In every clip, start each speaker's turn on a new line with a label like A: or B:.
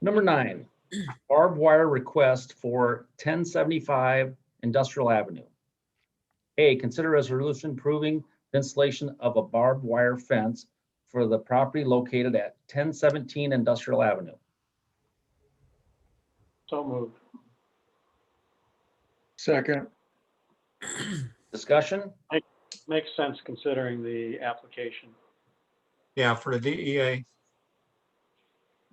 A: Number nine, barbed wire request for ten seventy-five Industrial Avenue. A, consider resolution approving the installation of a barbed wire fence for the property located at ten seventeen Industrial Avenue.
B: So moved.
C: Second,
A: Discussion?
B: Makes sense considering the application.
D: Yeah, for the DEA.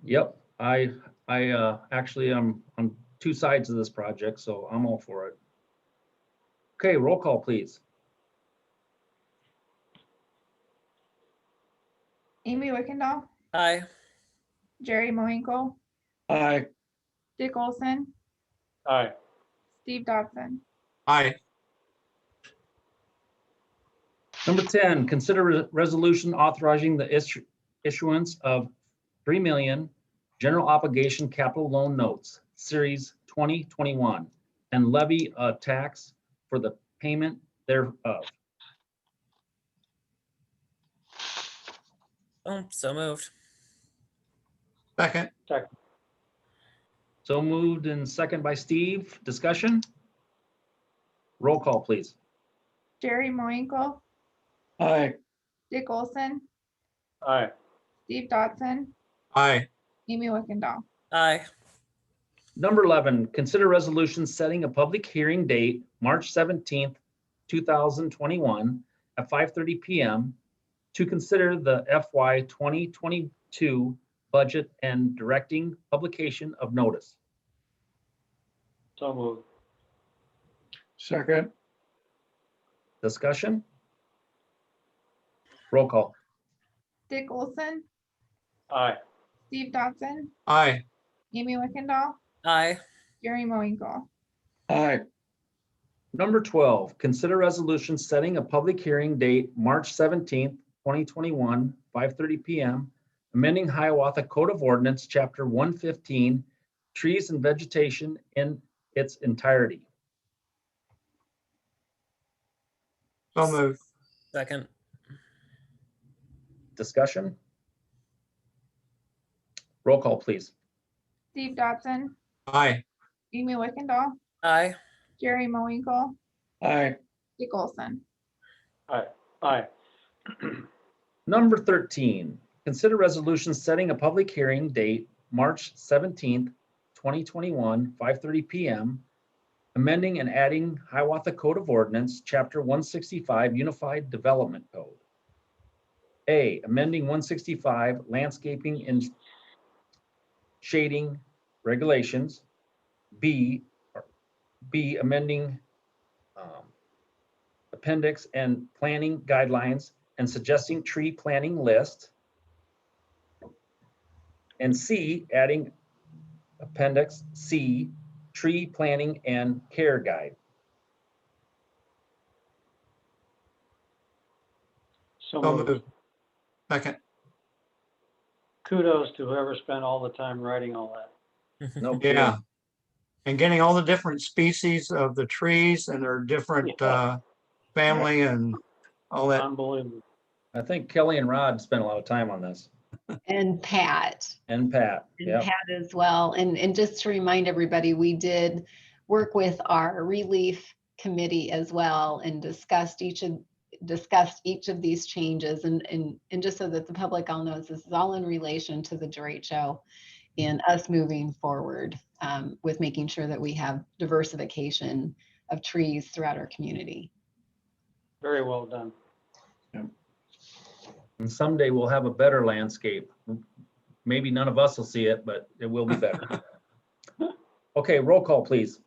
A: Yep, I, I, uh, actually, I'm on two sides of this project, so I'm all for it. Okay, roll call, please.
E: Amy Wickendall,
F: Aye.
E: Jerry Moinkle,
C: aye,
E: Dick Olson,
B: Aye.
E: Steve Dodson.
D: Aye,
A: Number 10, consider re- resolution authorizing the issu- issuance of 3 million general obligation capital loan notes, Series 2021, and levy a tax for the payment thereof.
F: Oh, so moved.
D: second,
A: So moved and second by Steve. Discussion? Roll call, please.
E: Jerry Moinkle,
C: aye,
E: Dick Olson,
B: Aye.
E: Steve Dodson,
D: aye,
E: Amy Wickendall.
F: Aye.
A: Number 11, consider resolution setting a public hearing date, March 17th, 2021, at 5:30 PM to consider the FY 2022 budget and directing publication of notice.
B: So moved.
C: second,
A: Discussion? Roll call.
E: Dick Olson,
B: Aye.
E: Steve Dodson,
D: aye,
E: Amy Wickendall,
F: Aye.
E: Jerry Moinkle,
C: aye,
A: Number 12, consider resolution setting a public hearing date, March 17th, 2021, 5:30 PM, amending Hiawatha Code of Ordinance, Chapter 115, trees and vegetation in its entirety.
D: so moved,
F: Second.
A: Discussion? Roll call, please.
E: Steve Dodson,
D: aye,
E: Amy Wickendall,
F: Aye.
E: Jerry Moinkle,
C: aye,
E: Dick Olson.
B: Aye.
A: Number 13, consider resolution setting a public hearing date, March 17th, 2021, 5:30 PM, amending and adding Hiawatha Code of Ordinance, Chapter 165 Unified Development Code. A, amending 165 landscaping and shading regulations. B, or B, amending um, appendix and planning guidelines and suggesting tree planting list. And C, adding appendix C, tree planting and care guide.
B: So
D: so
B: moved.
D: moved, second,
B: Kudos to whoever spent all the time writing all that.
A: No kidding.
D: yeah. And getting all the different species of the trees and their different
B: Yeah.
D: uh family and all that.
B: Unbelievable.
A: I think Kelly and Rod spent a lot of time on this
G: And Pat,
A: and Pat.
G: and
A: Yeah,
G: Pat as well. And, and just to remind everybody, we did work with our relief committee as well and discussed each of, discussed each of these changes. And, and, and just so that the public all knows, this is all in relation to the derecho and us moving forward um, with making sure that we have diversification of trees throughout our community.
B: Very well done.
A: and someday we'll have a better landscape. Maybe none of us will see it, but it will be better. Okay, roll call, please.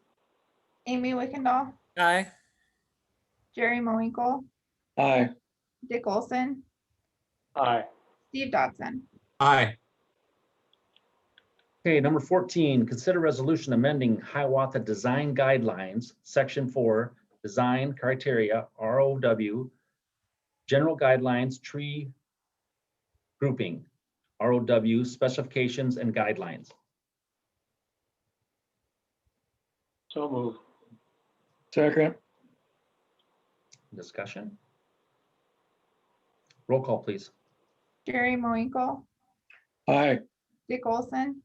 E: Amy Wickendall,
F: Aye.
E: Jerry Moinkle,
C: aye,
E: Dick Olson,
B: Aye.
E: Steve Dodson.
D: Aye,
A: Okay, number 14, consider resolution amending Hiawatha Design Guidelines, Section 4, Design Criteria, ROW, General Guidelines, Tree Grouping, ROW, Specifications and Guidelines.
B: So moved.
C: second,
A: Discussion? Roll call, please.
E: Jerry Moinkle,
C: aye,
E: Dick Olson,